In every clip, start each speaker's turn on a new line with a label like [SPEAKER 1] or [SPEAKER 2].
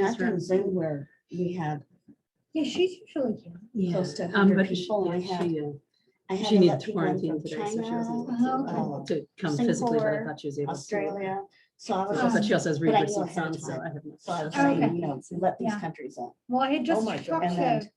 [SPEAKER 1] Catherine's anywhere we have
[SPEAKER 2] Yeah, she's usually here.
[SPEAKER 1] close to
[SPEAKER 3] Um, but
[SPEAKER 1] 100
[SPEAKER 3] she,
[SPEAKER 1] people. and I
[SPEAKER 3] yeah,
[SPEAKER 1] have,
[SPEAKER 3] she, uh,
[SPEAKER 1] I had
[SPEAKER 3] she
[SPEAKER 1] to
[SPEAKER 3] needed
[SPEAKER 1] let people in
[SPEAKER 3] quarantine
[SPEAKER 1] from
[SPEAKER 3] today, so she wasn't
[SPEAKER 1] China, uh,
[SPEAKER 2] Oh,
[SPEAKER 3] able to come physically, but I
[SPEAKER 1] Singapore,
[SPEAKER 3] thought she was able to.
[SPEAKER 1] Australia. So I was
[SPEAKER 3] So-
[SPEAKER 1] just,
[SPEAKER 3] But she also has
[SPEAKER 1] but I
[SPEAKER 3] readers
[SPEAKER 1] knew
[SPEAKER 3] and
[SPEAKER 1] ahead of
[SPEAKER 3] some, so
[SPEAKER 1] time.
[SPEAKER 3] I haven't.
[SPEAKER 1] so I was
[SPEAKER 2] Okay.
[SPEAKER 1] saying, you know, let these
[SPEAKER 2] Yeah.
[SPEAKER 1] countries in.
[SPEAKER 2] Well, I had
[SPEAKER 1] Oh
[SPEAKER 2] just
[SPEAKER 1] my God.
[SPEAKER 2] talked
[SPEAKER 1] And then-
[SPEAKER 2] to.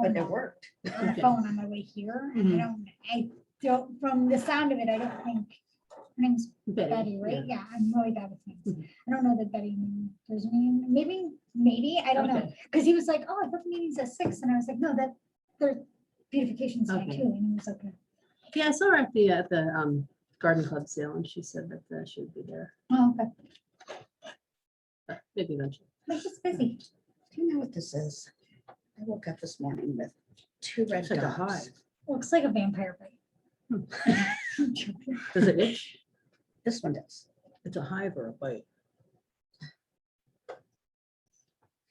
[SPEAKER 2] But it worked. On the
[SPEAKER 3] Okay.
[SPEAKER 2] phone on my way here, and I don't, I don't, from the sound of it, I don't think, her name's Betty, right? Yeah, I'm really bad with names. I don't know that Betty knew his name, maybe, maybe, I don't know. Because he was like, oh, I thought the meeting's at six, and I was like, no, that, there's beautification tonight
[SPEAKER 3] Okay.
[SPEAKER 2] too, and he was like,
[SPEAKER 3] Yeah, I saw her at the, at the um, garden club sale and she said that uh, she would be there,
[SPEAKER 2] oh, okay,
[SPEAKER 3] but maybe eventually.
[SPEAKER 2] they're just busy.
[SPEAKER 1] Do you know what this is? I woke up this morning with two red
[SPEAKER 3] It's like a
[SPEAKER 1] dots.
[SPEAKER 3] hive.
[SPEAKER 2] Looks like a vampire bite. I'm joking.
[SPEAKER 3] Does it itch?
[SPEAKER 1] This one does.
[SPEAKER 4] It's a hive or a bite.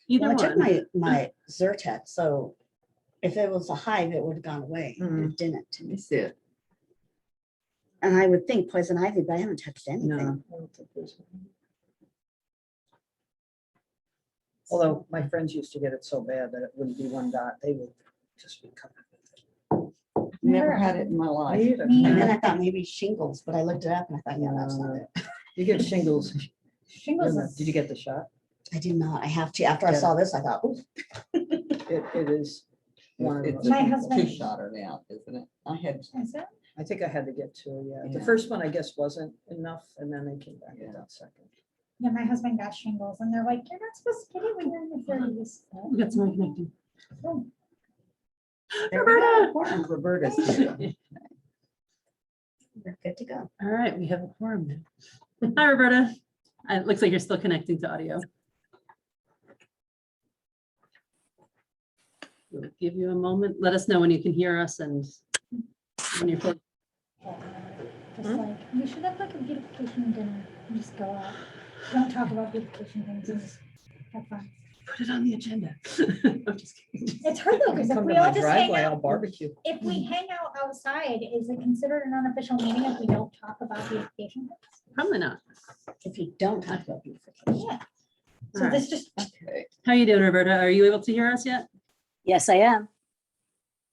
[SPEAKER 3] Either
[SPEAKER 1] Well, I took
[SPEAKER 3] one.
[SPEAKER 1] my, my Zyrtec, so if it was a hive, it would have gone away.
[SPEAKER 3] Mm-hmm.
[SPEAKER 1] and It didn't.
[SPEAKER 5] Let me see it.
[SPEAKER 1] And I would think poison ivy, but I haven't touched
[SPEAKER 3] No.
[SPEAKER 1] anything.
[SPEAKER 4] Although my friends used to get it so bad that it wouldn't be one dot, they would just be covered.
[SPEAKER 5] Never had it in my life.
[SPEAKER 4] with it.
[SPEAKER 2] Me
[SPEAKER 1] And
[SPEAKER 2] either.
[SPEAKER 1] then I thought maybe shingles, but I looked it up and I thought, yeah,
[SPEAKER 3] Uh,
[SPEAKER 1] that's not it.
[SPEAKER 4] You get shingles.
[SPEAKER 2] Shingles is.
[SPEAKER 4] Did you get the shot?
[SPEAKER 1] I do not. I have to. After I
[SPEAKER 4] Yeah.
[SPEAKER 1] saw this, I thought, ooh,
[SPEAKER 4] It, it is. one of
[SPEAKER 5] It's
[SPEAKER 4] those.
[SPEAKER 2] My
[SPEAKER 5] a
[SPEAKER 2] husband-
[SPEAKER 5] Two-shotter now, isn't it? I had,
[SPEAKER 2] Is it?
[SPEAKER 4] I think I had to get two, yeah. The
[SPEAKER 5] Yeah.
[SPEAKER 4] first one, I guess, wasn't enough, and then they came back with
[SPEAKER 5] Yeah.
[SPEAKER 4] that second.
[SPEAKER 2] Yeah, my husband got shingles and they're like, you're not supposed to get it when you're in the thirties.
[SPEAKER 4] Oh,
[SPEAKER 2] Oh.
[SPEAKER 3] We got someone connecting.
[SPEAKER 5] There we go.
[SPEAKER 3] Roberta!
[SPEAKER 5] Important, Roberta's here.
[SPEAKER 1] we're good to go.
[SPEAKER 3] All right, we have a forum now. Hi, Roberta. Uh, It looks like you're still connecting to audio. We'll Give you a moment. Let us know when you can hear us and when you're. close.
[SPEAKER 2] Just
[SPEAKER 4] Hmm?
[SPEAKER 2] like, we should have like a beautification dinner and just go out. Don't talk about beautification things and just have fun.
[SPEAKER 3] Put it on the agenda. I'm just kidding.
[SPEAKER 2] It's hard though, because if
[SPEAKER 4] Come to
[SPEAKER 2] we
[SPEAKER 4] my
[SPEAKER 2] all just hang
[SPEAKER 4] driveway, I'll
[SPEAKER 2] out,
[SPEAKER 4] barbecue.
[SPEAKER 2] if we hang out outside, is it considered an unofficial meeting if we don't talk about beautification? things?
[SPEAKER 3] Probably not.
[SPEAKER 1] If you don't talk about beautification.
[SPEAKER 2] Yeah.
[SPEAKER 3] All
[SPEAKER 2] So
[SPEAKER 3] right.
[SPEAKER 2] this just,
[SPEAKER 5] Okay.
[SPEAKER 3] How you doing, Roberta? Are you able to hear us yet?
[SPEAKER 6] Yes, I am.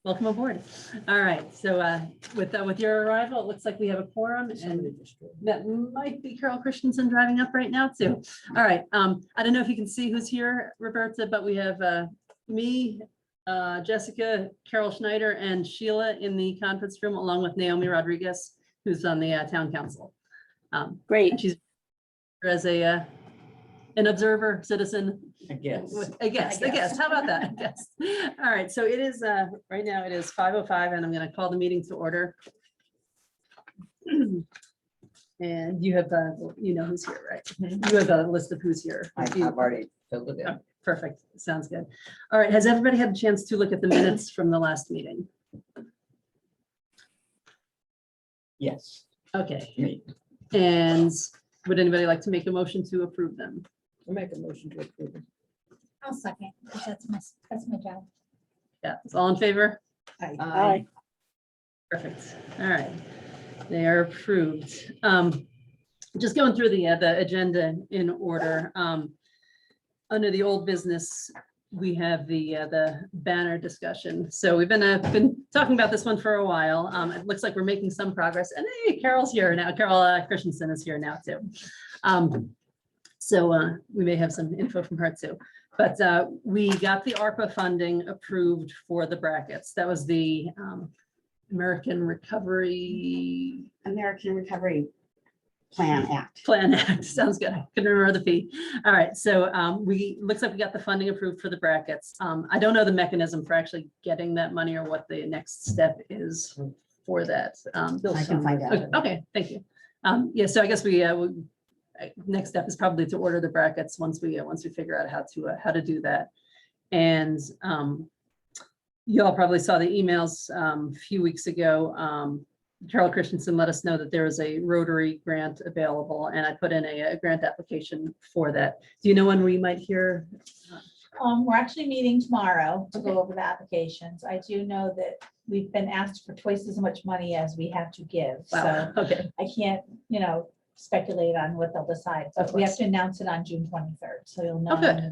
[SPEAKER 3] Welcome aboard. All right, so uh, with, uh, with your arrival, it looks like we have a quorum
[SPEAKER 4] Somebody
[SPEAKER 3] and
[SPEAKER 4] just-
[SPEAKER 3] that might be Carol Christensen driving up right now too. All right, um, I don't know if you can see who's here, Roberta, but we have uh, me, uh, Jessica, Carol Schneider, and Sheila in the conference room, along with Naomi Rodriguez, who's on the uh, town council. Um,
[SPEAKER 6] Great.
[SPEAKER 3] And she's as a, uh, an observer citizen
[SPEAKER 5] I guess.
[SPEAKER 3] with- I guess, I guess. How about that? I guess. All right, so it is, uh, right now it is five oh five and I'm gonna call the meeting to order. And you have, uh, you know who's here, right? You have a list of who's here.
[SPEAKER 5] I- I've already filled it in.
[SPEAKER 3] Perfect. Sounds good. All right, has everybody had a chance to look at the minutes from the last meeting?
[SPEAKER 5] Yes,
[SPEAKER 3] Okay,
[SPEAKER 5] me.
[SPEAKER 3] and would anybody like to make a motion to approve them?
[SPEAKER 4] I'll Make a motion to approve. it.
[SPEAKER 2] I'll suck it, 'cause that's my, that's my job.
[SPEAKER 3] Yeah, it's all in favor?
[SPEAKER 5] I
[SPEAKER 3] Perfect. All right. They are approved. Um, Just going through the, uh, the agenda in order. um, Under the old business, we have the, uh, the banner discussion. So we've been, uh, been talking about this one for a while. Um, It looks like we're making some progress. And hey, Carol's here now. Carol uh, Christensen is here now too. Um, So uh, we may have some info from her too. But uh, we got the ARPA funding approved for the brackets. That was the um, American Recovery
[SPEAKER 1] American Recovery Plan Act.
[SPEAKER 3] Plan Act. Sounds good. I couldn't remember the fee. All right, so um, we, looks like we got the funding approved for the brackets. Um, I don't know the mechanism for actually getting that money or what the next step is for that. Um,
[SPEAKER 4] Bill
[SPEAKER 1] I can
[SPEAKER 4] signed
[SPEAKER 1] find
[SPEAKER 4] it.
[SPEAKER 1] out.
[SPEAKER 3] Okay, okay, thank you. Um, yeah, so I guess we, uh, we- I- next step is probably to order the brackets once we, uh, once we figure out how to, uh, how to do that. And, um, you all probably saw the emails, um, a few weeks ago. Um, Carol Christensen let us know that there is a Rotary grant available and I put in a, a grant application for that. Do you know when we might hear?
[SPEAKER 7] Um, we're actually meeting tomorrow to go over the applications. I do know that we've been asked for twice as much money as we have to give, so
[SPEAKER 3] Wow, okay,
[SPEAKER 7] I can't, you know,
[SPEAKER 2] speculate on what they'll decide, but we have to announce it on June twenty-third, so you'll know.
[SPEAKER 3] Oh, good.